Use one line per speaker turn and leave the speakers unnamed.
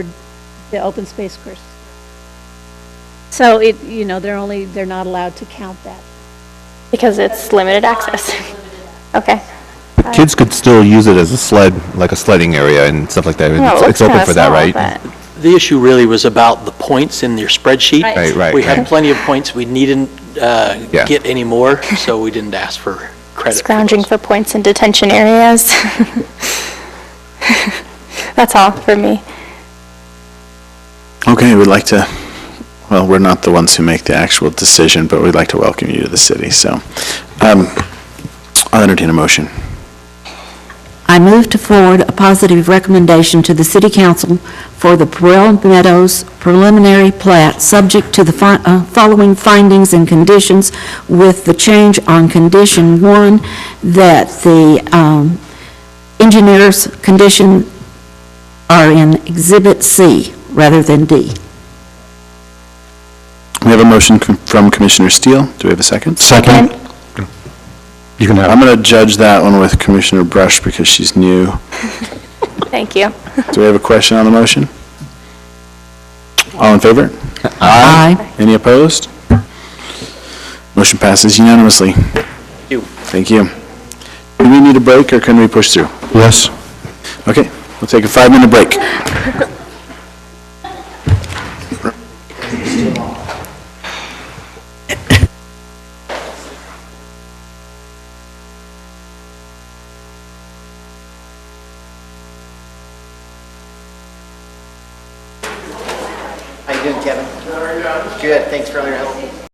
the open space course. So it, you know, they're only, they're not allowed to count that.
Because it's limited access. Okay.
Kids could still use it as a sled, like a sledding area and stuff like that.
Well, it
It's- It's
looks
open
kinda
for that,
small,
right?
but-
The issue really was about the points in your spreadsheet.
Right.
Right, right,
We had
right.
plenty of points, we needn't uh,
Yeah.
get any more, so we didn't ask for credit. for
Scrounging
those.
for points in detention areas. That's all for me.
Okay, we'd like to, well, we're not the ones who make the actual decision, but we'd like to welcome you to the city, so. um, I'll entertain a motion.
I move to forward a positive recommendation to the City Council for the Perel Meadows preliminary plat, subject to the fi- uh, following findings and conditions, with the change on condition one, that the um, engineer's condition are in Exhibit C rather than D.
We have a motion com- from Commissioner Steele. Do we have a second?
Second. You can
I'm
have,
going to judge that one with Commissioner Brush because she's new.
Thank you.
Do we have a question on the motion? All in favor?
Aye.
Any opposed? Motion passes unanimously.
you.
Thank you. Do we need a break or can we push through?
yes.
Okay, we'll take a five-minute break.
How you doing, Kevin? Good, thanks for all your help.